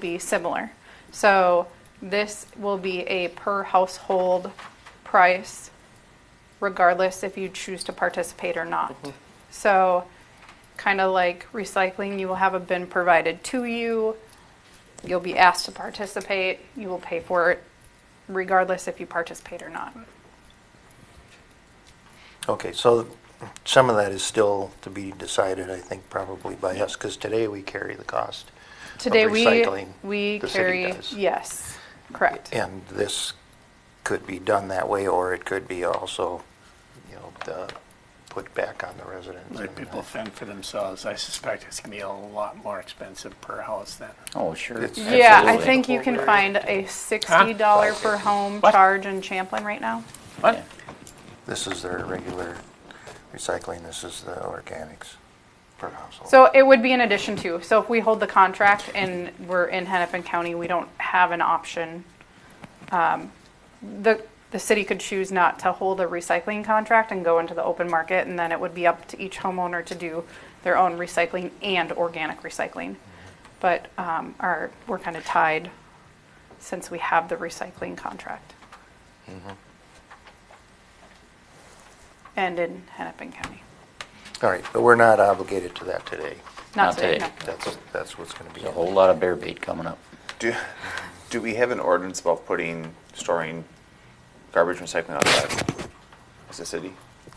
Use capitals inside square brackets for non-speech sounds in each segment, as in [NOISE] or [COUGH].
be similar. So this will be a per household price regardless if you choose to participate or not. Mm-hmm. So kind of like recycling, you will have a bin provided to you. You'll be asked to participate. You will pay for it regardless if you participate or not. Okay, so some of that is still to be decided, I think, probably by us, because today we carry the cost. Today we recycling, we the city carry does. yes. Correct. And this could be done that way, or it could be also, you know, uh, put back on the residents. uh, Let people fend for themselves. I suspect it's gonna be a lot more expensive per house than. Oh, sure. It's- Yeah, I Absolutely. think you can find a sixty dollar per home What? charge in Champlin right now. [LAUGHS] Yeah. This is their regular recycling, this is the organics per household. So it would be in addition to, so if we hold the contract and we're in Hennepin County, we don't have an option. Um, The, the city could choose not to hold a recycling contract and go into the open market, and then it would be up to each homeowner to do their own recycling and organic recycling. But um, our, we're kind of tied since we have the recycling contract. And in Hennepin County. All right, but we're not obligated to that today. Not Not today, today. no. That's, that's what's going to be. There's a whole lot of bear bait coming up. Do, do we have an ordinance about putting, storing garbage recycling outside as a city?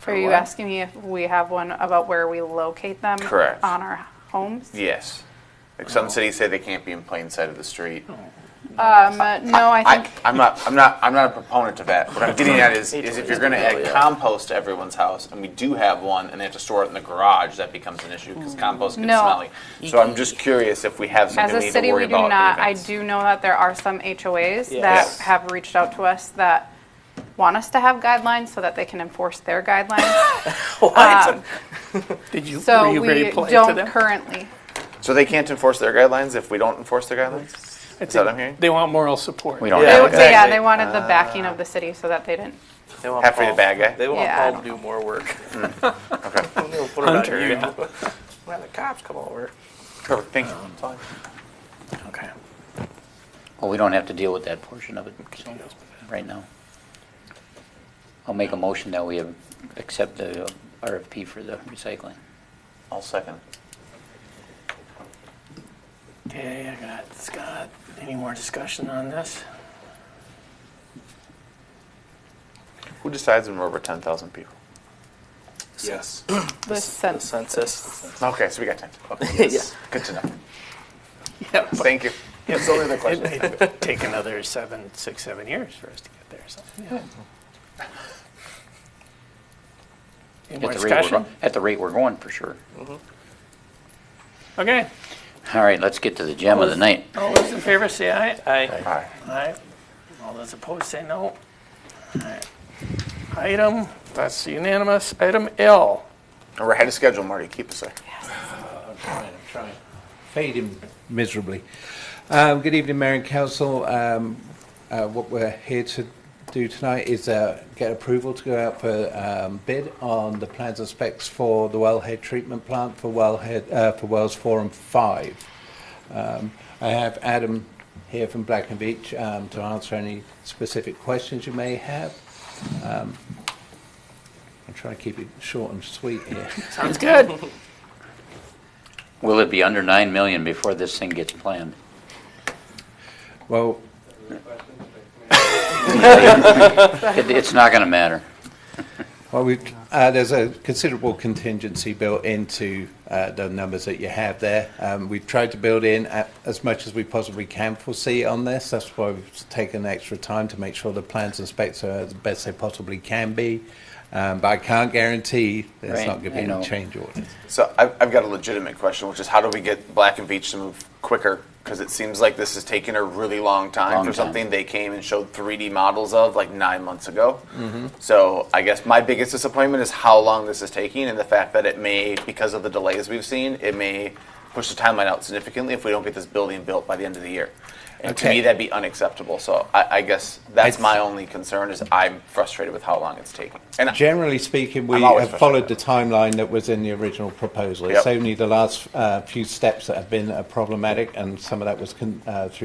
Are you asking me if we have one about where we locate them? Correct. On our homes? Yes. Like some cities say they can't be in plain sight of the street. Um, uh, no, I I, think, I'm not, I'm not, I'm not a proponent of that. What I'm getting at [LAUGHS] is, is if you're gonna add compost to everyone's house, and we do have one, and they have to store it in the garage, that becomes an issue, because compost gets Mm. No. smelly. So I'm just curious if we have as something a we need to city, worry we do about. not. in I advance. do know that there are some HOAs that Yes. have reached out to us that want us to have guidelines so that they can enforce their [GASPS] guidelines. Um, Did you, were So you we ready to play to don't them? currently. So they can't enforce their guidelines if we don't enforce their guidelines? I Is that what think I'm hearing? They want moral support. We don't They- Yeah, have they- Yeah, exactly. Uh, they wanted the backing of the city so that they didn't. They want Half for the Paul- bad guy? They want Yeah, I Paul don't to do more work. Okay. [LAUGHS] They'll put it on Hunter, you. yeah. When the cops come over. Perfect, thank you. Okay. Well, we don't have to deal with that portion of it so, right now. I'll make a motion that we have- accept the RFP for the recycling. I'll second. Okay, I got Scott. Any more discussion on this? Who decides when we're over 10,000 people? Yes. The The sense. [LAUGHS] census. [CLEARS THROAT] Okay, so we got 10. Okay, Yeah. good to know. Yeah. Thank you. That's only the question. It may take another seven, six, seven years for us to get there, so, yeah. Any more At the rate we're discussion? go- At the rate we're going, for sure. Okay. All right, let's get to the gem of the night. All those in favor say aye. Aye. Hi. Aye. All those opposed say no. All right. Item, that's unanimous. Item L. We're ahead of schedule, Marty. Keep us there. paid him miserably. Um, good evening, Mayor and Council. Um, uh, what we're here to do tonight is uh, get approval to go out for um, bid on the plans and specs for the wellhead treatment plant for wellhead uh, for wells four and five. Um, I have Adam here from Black and Beach um, to answer any specific questions you may have. Um, I'm trying to keep it short and sweet here. [LAUGHS] Sounds good. Will it be under 9 million before this thing gets planned? Well, It- It's not going to matter. Well, we, uh, there's a considerable contingency built into uh, the numbers that you have there. Um, we've tried to build in a as much as we possibly can foresee on this. That's why we've taken extra time to make sure the plans and specs are the best they possibly can be. Um, but I can't guarantee there's Right, not going I to be know. any change orders. So I've, I've got a legitimate question, which is how do we get Black and Beach to move quicker? Because it seems like this has taken a really long time Long for time. something they came and showed 3D models of like nine months ago. So I guess my biggest disappointment is how long this is taking and the fact that it may, because of the delays we've seen, it may push the timeline out significantly if we don't get this building built by the end of the year. And to Okay. me, that'd be unacceptable. So I, I guess that's I- my only concern is I'm frustrated with how long it's taking. And I- Generally speaking, we I'm always have followed the timeline that was in the original proposal. It's Yep. only the last uh, few steps that have been uh, problematic, and some of that was con- uh, through